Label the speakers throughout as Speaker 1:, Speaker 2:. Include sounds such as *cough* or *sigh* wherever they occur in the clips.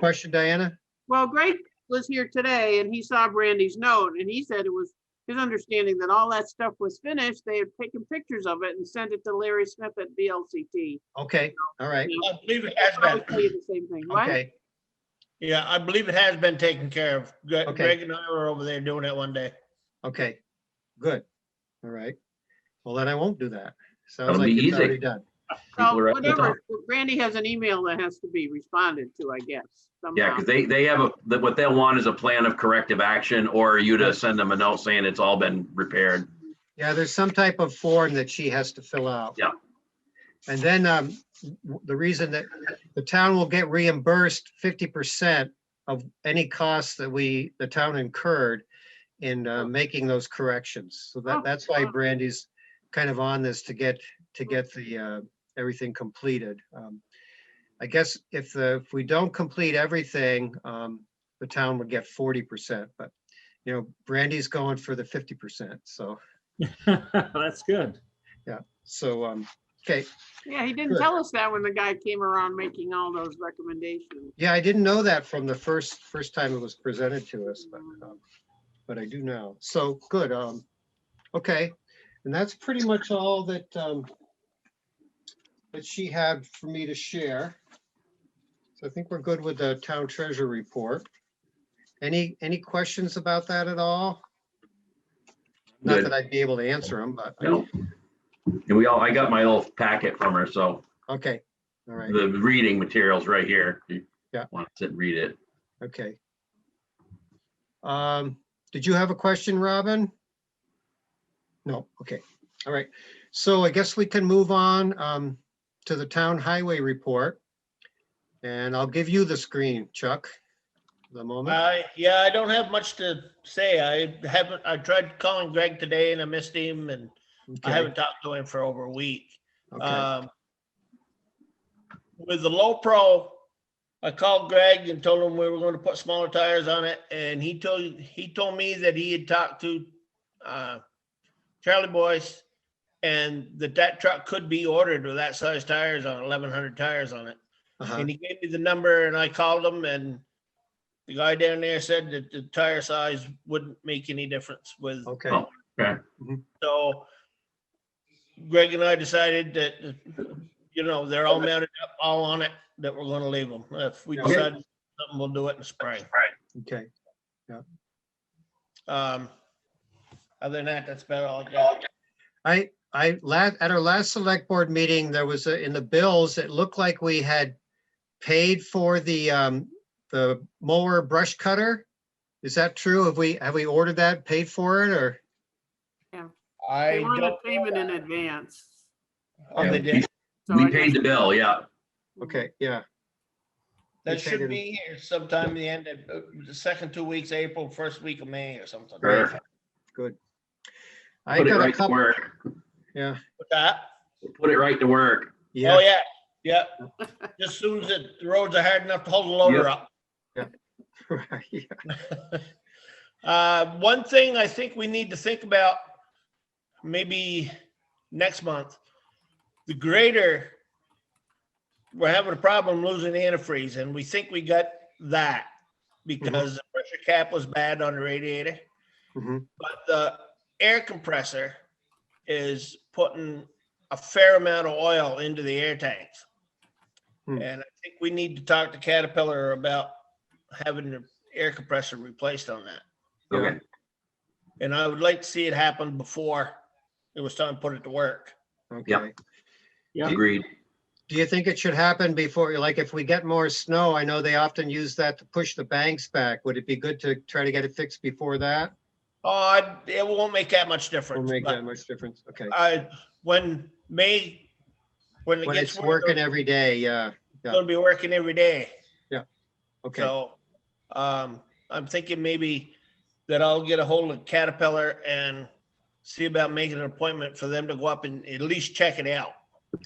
Speaker 1: question, Diana?
Speaker 2: Well, Greg was here today and he saw Brandy's note and he said it was his understanding that all that stuff was finished. They had taken pictures of it and sent it to Larry Smith at BLCT.
Speaker 1: Okay, all right,
Speaker 3: I believe it
Speaker 2: I
Speaker 3: has
Speaker 2: would tell
Speaker 3: been.
Speaker 2: you the same thing, right?
Speaker 1: okay,
Speaker 3: Yeah, I believe it has been taken care of. Gre-
Speaker 1: Okay.
Speaker 3: Greg and I were over there doing it one day.
Speaker 1: okay, good, all right. Well, then I won't do that. Sounds
Speaker 4: That'll
Speaker 1: like
Speaker 4: be
Speaker 1: it's
Speaker 4: easy.
Speaker 1: already done.
Speaker 2: So
Speaker 4: People are up to talk.
Speaker 2: whatever, Brandy has an email that has to be responded to, I guess.
Speaker 4: Yeah,
Speaker 2: somehow.
Speaker 4: because they, they have a, that what they'll want is a plan of corrective action or you to send them a note saying it's all been repaired.
Speaker 1: Yeah, there's some type of form that she has to fill out.
Speaker 4: Yeah.
Speaker 1: And then um, w- the reason that the town will get reimbursed fifty percent of any costs that we, the town incurred in uh, making those corrections. So
Speaker 2: Oh,
Speaker 1: that, that's why
Speaker 2: wow.
Speaker 1: Brandy's kind of on this to get, to get the, uh, everything completed. Um, I guess if the, if we don't complete everything, um, the town would get forty percent, but, you know, Brandy's going for the fifty percent, so.
Speaker 5: *laughs* That's good.
Speaker 1: So, um, okay,
Speaker 2: Yeah, he didn't
Speaker 1: Good.
Speaker 2: tell us that when the guy came around making all those recommendations.
Speaker 1: yeah, I didn't know that from the first, first time it was presented to us, but, um, but I do now. So, good, um, okay. And that's pretty much all that, um, that she had for me to share. So I think we're good with the town treasurer report. Any, any questions about that at all? Not
Speaker 4: Good.
Speaker 1: that I'd be able to answer them, but,
Speaker 4: No. And we all, I got my little packet from her, so
Speaker 1: okay, all right,
Speaker 4: the reading material's right here. If you
Speaker 1: Yeah.
Speaker 4: Want to sit and read it.
Speaker 1: okay. Um, did you have a question, Robin? No, okay, all right. So I guess we can move on um to the town highway report. And I'll give you the screen, Chuck. The moment,
Speaker 3: Uh, I, yeah, I don't have much to say. I haven't, I tried calling Greg today and I missed him and I
Speaker 1: okay,
Speaker 3: haven't talked to him for over a week.
Speaker 1: okay,
Speaker 3: Um, with the low pro, I called Greg and told him we were going to put smaller tires on it, and he told, he told me that he had talked to, uh, Charlie Boyce, and that that truck could be ordered with that size tires on, eleven hundred tires on it.
Speaker 1: uh-huh,
Speaker 3: And he gave me the number and I called him and the guy down there said that the tire size wouldn't make any difference with
Speaker 1: okay,
Speaker 4: Oh.
Speaker 3: so Greg and I decided that, you know, they're all mounted up, all on it, that we're gonna leave them. If we
Speaker 1: Okay.
Speaker 3: decide something, we'll do it in spring.
Speaker 1: okay.
Speaker 3: Um, other than that, that's about all I got.
Speaker 1: I, I, la at our last select board meeting, there was, a- in the bills, it looked like we had paid for the, um, the mower brush cutter. Is that true? Have we, have we ordered that, paid for it, or?
Speaker 3: I
Speaker 2: They wanted
Speaker 3: don't.
Speaker 2: payment in advance.
Speaker 3: Oh, they did.
Speaker 2: so
Speaker 4: We
Speaker 2: I
Speaker 4: paid
Speaker 2: guess-
Speaker 4: the bill, yeah.
Speaker 1: Okay, yeah,
Speaker 3: That
Speaker 1: They
Speaker 3: should
Speaker 1: paid
Speaker 3: be here sometime in the end of, uh, the second two weeks, April, first week of May or something.
Speaker 4: Perfect.
Speaker 1: good. I
Speaker 4: Put it
Speaker 1: got a
Speaker 4: right to
Speaker 1: couple,
Speaker 4: work.
Speaker 1: yeah,
Speaker 3: With that,
Speaker 4: Put it right to work.
Speaker 3: oh,
Speaker 1: yeah,
Speaker 3: yeah, yeah. Just soon as the roads are hard enough to hold the loader
Speaker 4: Yep.
Speaker 3: up.
Speaker 1: *laughs* right, yeah,
Speaker 3: Uh, one thing I think we need to think about, maybe next month, the grader, we're having a problem losing antifreeze, and we think we got that because the pressure cap was bad on the radiator.
Speaker 1: mhm,
Speaker 3: But the air compressor is putting a fair amount of oil into the air tanks.
Speaker 1: Hmm.
Speaker 3: And I think we need to talk to Caterpillar about having the air compressor replaced on that.
Speaker 1: Yeah.
Speaker 4: Okay.
Speaker 3: And I would like to see it happen before it was time to put it to work.
Speaker 1: okay.
Speaker 5: Yeah.
Speaker 4: Agreed.
Speaker 1: Do you think it should happen before, like, if we get more snow, I know they often use that to push the banks back. Would it be good to try to get it fixed before that?
Speaker 3: Oh, I, it won't make that much
Speaker 1: Will
Speaker 3: difference,
Speaker 1: make that
Speaker 3: but
Speaker 1: much difference, okay.
Speaker 3: I, when May, when it
Speaker 1: When
Speaker 3: gets
Speaker 1: it's
Speaker 3: working,
Speaker 1: working
Speaker 3: it's
Speaker 1: every day, yeah,
Speaker 3: gonna be working every day.
Speaker 1: okay.
Speaker 3: So, um, I'm thinking maybe that I'll get a hold of Caterpillar and see about making an appointment for them to go up and at least check it out.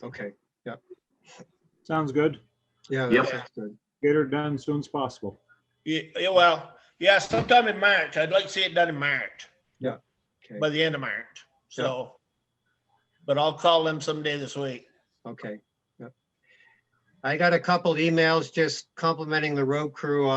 Speaker 1: Okay,
Speaker 5: Sounds good.
Speaker 1: yeah,
Speaker 4: Yep.
Speaker 1: that sounds good.
Speaker 5: Get her done soon as possible.
Speaker 3: Yeah, yeah, well, yeah, sometime in March. I'd like to see it done in March.
Speaker 1: Yeah, okay.
Speaker 3: By the end of March, so. But I'll call them someday this week.
Speaker 1: Okay. yep. I got a couple emails just complimenting the road crew